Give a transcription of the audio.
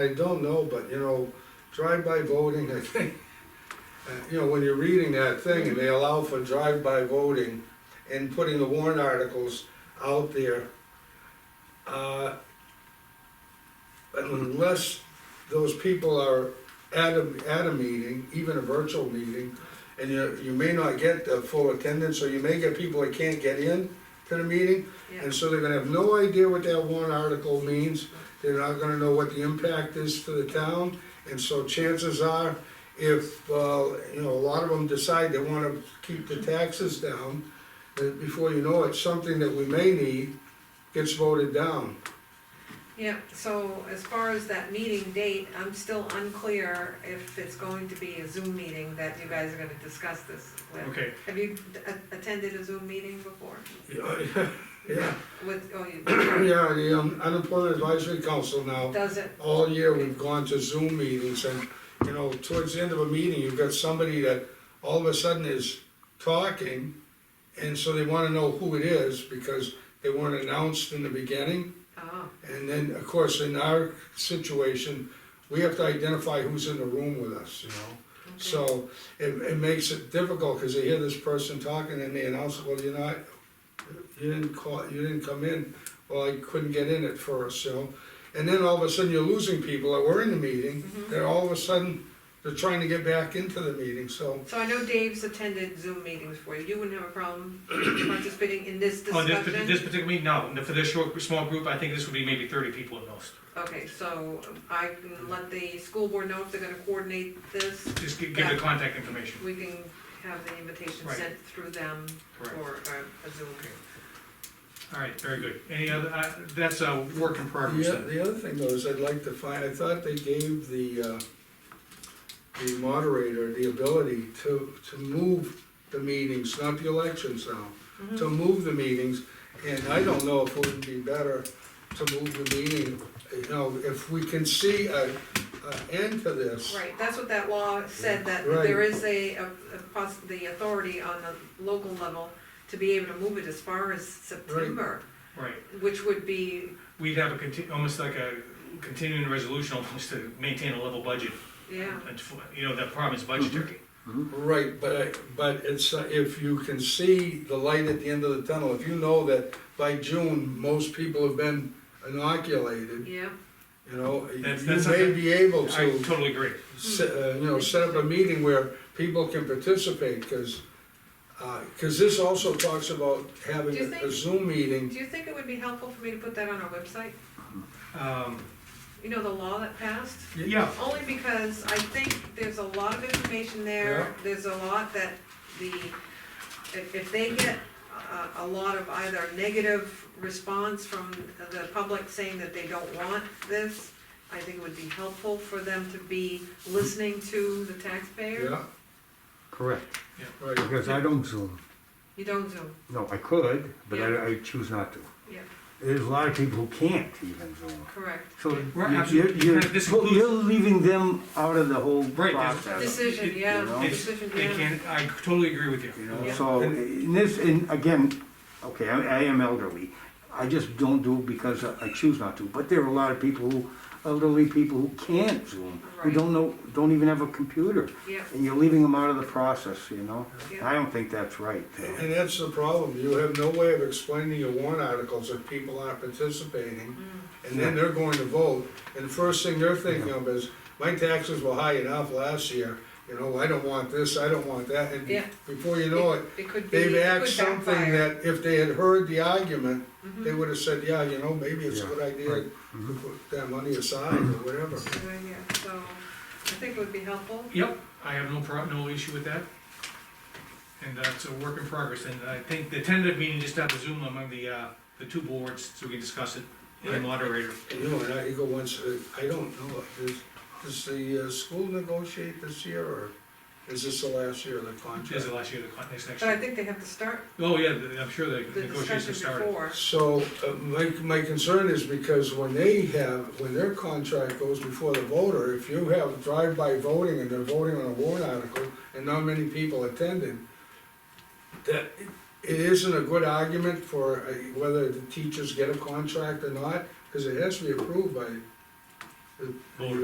I don't know, but you know, drive-by voting, I think, uh, you know, when you're reading that thing and they allow for drive-by voting and putting the warrant articles out there, uh, unless those people are at a, at a meeting, even a virtual meeting, and you, you may not get the full attendance, or you may get people that can't get in to the meeting, Yeah, and so they're gonna have no idea what that warrant article means, they're not gonna know what the impact is to the town, and so chances are, if, uh, you know, a lot of them decide they wanna keep the taxes down, then before you know it, something that we may need gets voted down. yeah, so as far as that meeting date, I'm still unclear if it's going to be a Zoom meeting that you guys are gonna discuss this with. Okay, Have you d- a- attended a Zoom meeting before? Yeah, With, oh, you, yeah, the um, unemployment advisory council Um, now, does it, oh, all year we've gone to Zoom meetings and, you know, towards the end of a meeting, you've got somebody that all of a sudden is talking, and so they wanna know who it is because they weren't announced in the beginning. oh, And then, of course, in our situation, we have to identify who's in the room with us, you know? okay, So it, it makes it difficult, cause they hear this person talking and they announce, well, you're not, you didn't call, you didn't come in. Well, I couldn't get in at first, so, and then all of a sudden you're losing people that were in the meeting, they're all of a sudden, they're trying to get back into the meeting, so. so I know Dave's attended Zoom meetings for you, you wouldn't have a problem participating in this on this, pa- this discussion? particular meeting, no, No, for this short, small group, I think this would be maybe thirty people at most. Okay, so I can let the school board know if they're gonna coordinate this, Just gi- give the contact information. we can have the invitation Right. sent through them Correct. for a- a Zoom. All right, very good. Any other, uh, that's a work in progress The, o- then. the other thing though is I'd like to find, I thought they gave the, uh, the moderator the ability to, to move the meetings, not the elections now. Mhm. to move the meetings, and I don't know if it would be better to move the meeting, you know, if we can see a, a end to this. Right, that's what that law said, that Right. there is a, a, a poss- the authority on the local level to be able to move it as far as September, Right, which would be, we'd have a conti, almost like a continuing resolution almost to maintain a level budget. yeah, And for- You know, the problem is budgetary. Right, but, I- but it's, uh, if you can see the light at the end of the tunnel, if you know that by June, most people have been inoculated, yeah. you know, you That's- that's may okay. be able I to, totally agree. se- uh, you know, set up a meeting where people can participate, cause, uh 'cause this also talks about having Do you a- a think- Zoom meeting Do you think it would be helpful for me to put that on our website? Um, You know, the law that passed? yeah, Only because I think there's a lot of information there, there's a lot that the, if, if they get a, a lot of either negative response from the public saying that they don't want this, I think it would be helpful for them to be listening to the taxpayer. Yeah, Correct, right. because I don't Zoom. You don't Zoom, No, I could, but Yeah. I, I choose not to. Yeah. There's a lot of people who can't even Zoom. correct. So Right, you're- you're, absolutely. you're, This well, includes- you're leaving them out of the whole Right, there's- process. Decision, You yeah, know? It's- decision, they yeah. can, I totally agree with you. You know, Yeah. so in this, and again, okay, I, I am elderly. I just don't do it because I I choose not to. But there are a lot of people who, elderly people who can't Zoom, who Right. don't know, don't even have a computer. Yeah, And you're leaving them out of the process, you know? Yeah. I don't think that's right. And that's the problem, you have no way of explaining your warrant articles if people aren't participating, Mm. and then they're going to vote, and the first thing they're thinking of is, my taxes were high enough last year, you know, I don't want this, I don't want that, and Yeah. before you know it, it could be, they've it asked could something backfire. that if they had heard the argument, they Mhm. would have said, yeah, you know, maybe it's a Yeah, good idea right. Mm-hmm. to put that money aside or whatever. Yeah, yeah, so I think it would be helpful. Yep, I have no prob, no issue with that. And uh, it's a work in progress, and I think the tentative meeting, just have a Zoom among the, uh, the two boards, so we can discuss it, and the moderator. You know, and I go once, uh, I don't know, does, does the uh, school negotiate this year, or is this the last year of the As contract? the last year, the con- next, next But I year. think they have to start Oh, yeah, the- I'm sure the the discussion negotiations started. before. So, uh, my, my concern is because when they have, when their contract goes before the voter, if you have drive-by voting and they're voting on a warrant article, and not many people attended, that, it isn't a good argument for uh, whether the teachers get a contract or not, because it has to be approved by the- Voter